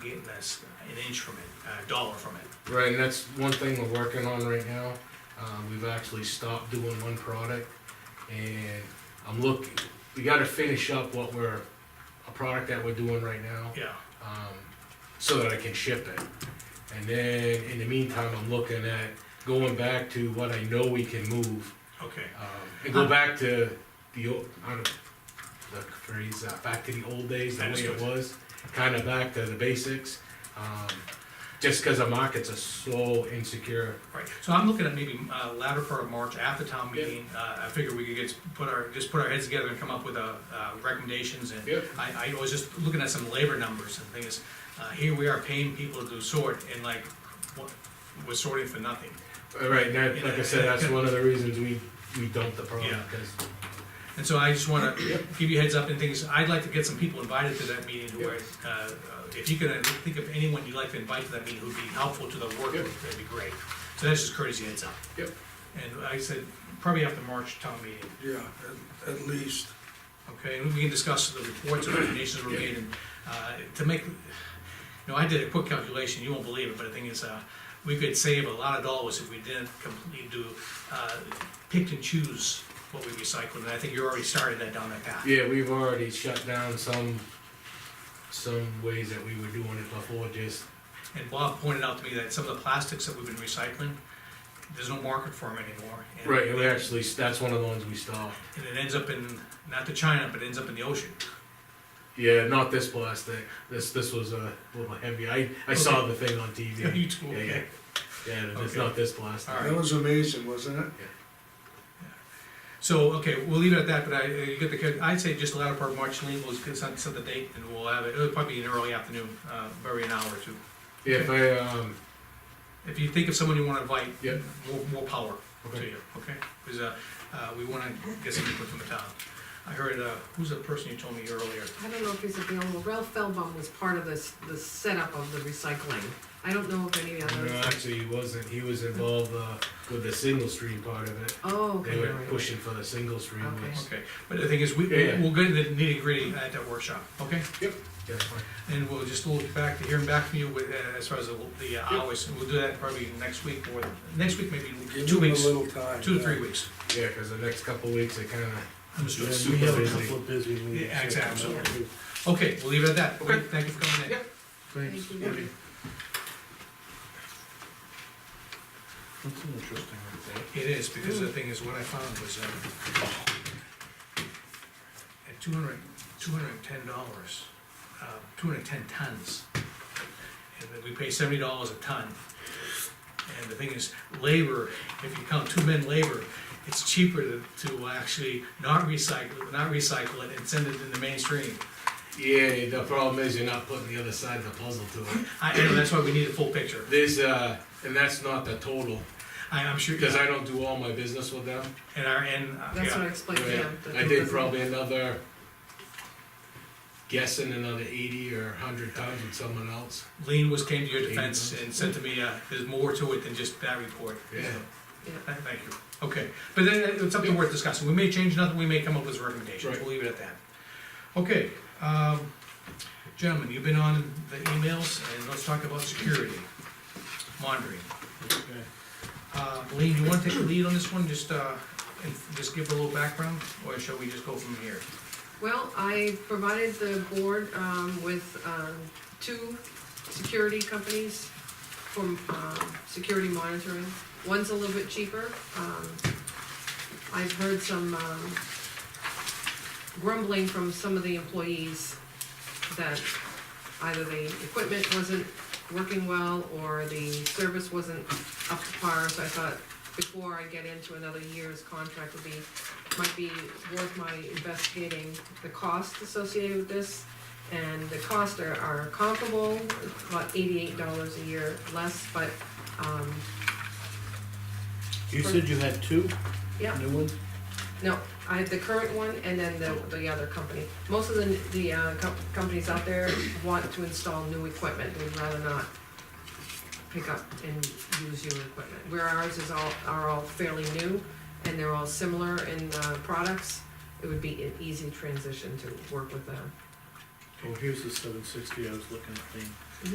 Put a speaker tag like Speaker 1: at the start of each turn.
Speaker 1: getting us an inch from it, a dollar from it.
Speaker 2: Right, and that's one thing we're working on right now. Uh, we've actually stopped doing one product and I'm looking, we gotta finish up what we're, a product that we're doing right now,
Speaker 1: Yeah,
Speaker 2: um, so that I can ship it. And then in the meantime, I'm looking at going back to what I know we can move,
Speaker 1: okay.
Speaker 2: um, and go back to the, old- I don't know, the phrase, uh, back to the old days, the way it was, kinda back to the basics. Um, just cause our markets are so insecure.
Speaker 1: Right, so I'm looking at maybe uh, latter part of March at the town meeting. Uh, I figure we could get, put our, just put our heads together and come up with uh, uh, recommendations and
Speaker 2: Yep.
Speaker 1: I, I was just looking at some labor numbers and things. Uh, Here we are paying people to do sort and like, what- we're sorting for nothing.
Speaker 2: All Uh, right, and that, like I said, that's one of the reasons we, we dumped the product,
Speaker 1: Yeah.
Speaker 2: cause,
Speaker 1: And so I just wanna give you a heads up and things, I'd like to get some people invited to that meeting who are, uh, uh, if you could uh, think of anyone you'd like to invite to that meeting who'd be helpful to the work,
Speaker 2: Yep.
Speaker 1: that'd be great. So that's just courtesy heads up.
Speaker 2: yep,
Speaker 1: And like I said, probably after March town meeting,
Speaker 3: Yeah, at, at least.
Speaker 1: okay? And we can discuss the reports and recommendations we made and, uh, to make, you know, I did a quick calculation, you won't believe it, but the thing is, uh, we could save a lot of dollars if we didn't completely do, uh, pick and choose what we recycled, and I think you already started that down that path.
Speaker 2: yeah, we've already shut down some, some ways that we were doing it before, just,
Speaker 1: And Bob pointed out to me that some of the plastics that we've been recycling, there's no market for them anymore. And-
Speaker 2: right, and we actually, that's one of the ones we stopped.
Speaker 1: And it ends up in, not to China, but it ends up in the ocean.
Speaker 2: Yeah, not this plastic, this, this was uh, a little heavy, I, I saw the thing on TV,
Speaker 1: You too,
Speaker 2: Yeah, yeah.
Speaker 1: okay.
Speaker 2: yeah, it's
Speaker 1: Okay.
Speaker 2: not this plastic.
Speaker 1: All right.
Speaker 3: That was amazing, wasn't it?
Speaker 1: So, okay, we'll leave it at that, but I, uh, you get the, I'd say just the latter part of March, Lean, we'll set, set the date and we'll have it, it'll probably be in early afternoon, uh, very an hour or two.
Speaker 2: Yeah, If I, um,
Speaker 1: If you think of someone you wanna invite,
Speaker 2: Yeah.
Speaker 1: more, more power to
Speaker 2: Okay.
Speaker 1: you, okay? Cause, uh, uh, we wanna get some input from the town. I heard, uh, who's the person you told me earlier?
Speaker 4: I don't know if he's available, Ralph Feldbaum was part of this, the setup of the recycling. I don't know if any
Speaker 2: no,
Speaker 4: others,
Speaker 2: actually, he wasn't, he was involved, uh, with the single stream part of it,
Speaker 4: oh,
Speaker 2: they
Speaker 4: okay,
Speaker 2: were
Speaker 4: all right.
Speaker 2: pushing for the single stream,
Speaker 4: Okay.
Speaker 2: which,
Speaker 1: Okay, but the thing is, we,
Speaker 2: Yeah, yeah.
Speaker 1: we'll get into the nitty gritty at that workshop, okay?
Speaker 2: yep, that's fine.
Speaker 1: And we'll just look back to hearing back from you with, uh, as far as the, the hours, and we'll do that probably next week or, next week maybe,
Speaker 3: Give
Speaker 1: two
Speaker 3: them
Speaker 1: weeks,
Speaker 3: a little time.
Speaker 1: two to three weeks.
Speaker 2: Yeah, cause the next couple of weeks, it kinda,
Speaker 1: I'm just
Speaker 5: Yeah,
Speaker 1: doing
Speaker 5: we have a
Speaker 2: super busy.
Speaker 5: couple of busy meetings.
Speaker 1: Yeah, exactly. Okay, we'll leave it at that.
Speaker 2: Okay.
Speaker 1: Thank you for coming in.
Speaker 2: Yep.
Speaker 5: Thanks.
Speaker 4: Thank you.
Speaker 5: That's an interesting one.
Speaker 1: It is, because the thing is, what I found was, uh, at two hundred, two hundred and ten dollars, uh, two hundred and ten tons. And then we pay seventy dollars a ton. And the thing is, labor, if you count two men labor, it's cheaper to, to actually not recycle, not recycle it and send it in the mainstream.
Speaker 2: Yeah, the problem is you're not putting the other side of the puzzle to it.
Speaker 1: I, I know, that's why we need a full picture.
Speaker 2: There's, uh, and that's not the total,
Speaker 1: I, I'm sure,
Speaker 2: because I don't do all my business with them.
Speaker 1: and our, and, uh,
Speaker 4: That's what I
Speaker 1: yeah,
Speaker 4: explained to
Speaker 2: Yeah,
Speaker 4: him. that
Speaker 2: I
Speaker 4: he
Speaker 2: did
Speaker 4: was-
Speaker 2: probably another, guessing another eighty or hundred tons with someone else.
Speaker 1: Lean was, came to your defense and said to me, uh, there's more to it than just that report.
Speaker 2: Yeah.
Speaker 4: Yeah.
Speaker 1: Th- Thank you, okay, but then uh, it's something worth discussing, we may change nothing, we may come up with recommendations,
Speaker 2: Right.
Speaker 1: we'll leave it at that. Okay, um, gentlemen, you've been on the emails, and let's talk about security, monitoring.
Speaker 5: Okay.
Speaker 1: Uh, Lean, you wanna take the lead on this one, just, uh, and just give a little background, or shall we just go from here?
Speaker 4: Well, I provided the board um, with um, two security companies from um, security monitoring. One's a little bit cheaper. Um, I've heard some um, grumbling from some of the employees that either the equipment wasn't working well or the service wasn't up to par, so I thought before I get into another year's contract would be might be worth my investigating the cost associated with this. And the costs are, are comparable, about eighty-eight dollars a year less, but, um,
Speaker 5: You said you had two
Speaker 4: yeah,
Speaker 5: new ones?
Speaker 4: no, I have the current one and then the, the other company. Most of the, the, uh, com- companies out there want to install new equipment, they'd rather not pick up and use your equipment. Where ours is all, are all fairly new and they're all similar in, uh, products, it would be an easy transition to work with them.
Speaker 5: Oh, here's the seven sixty I was looking at, the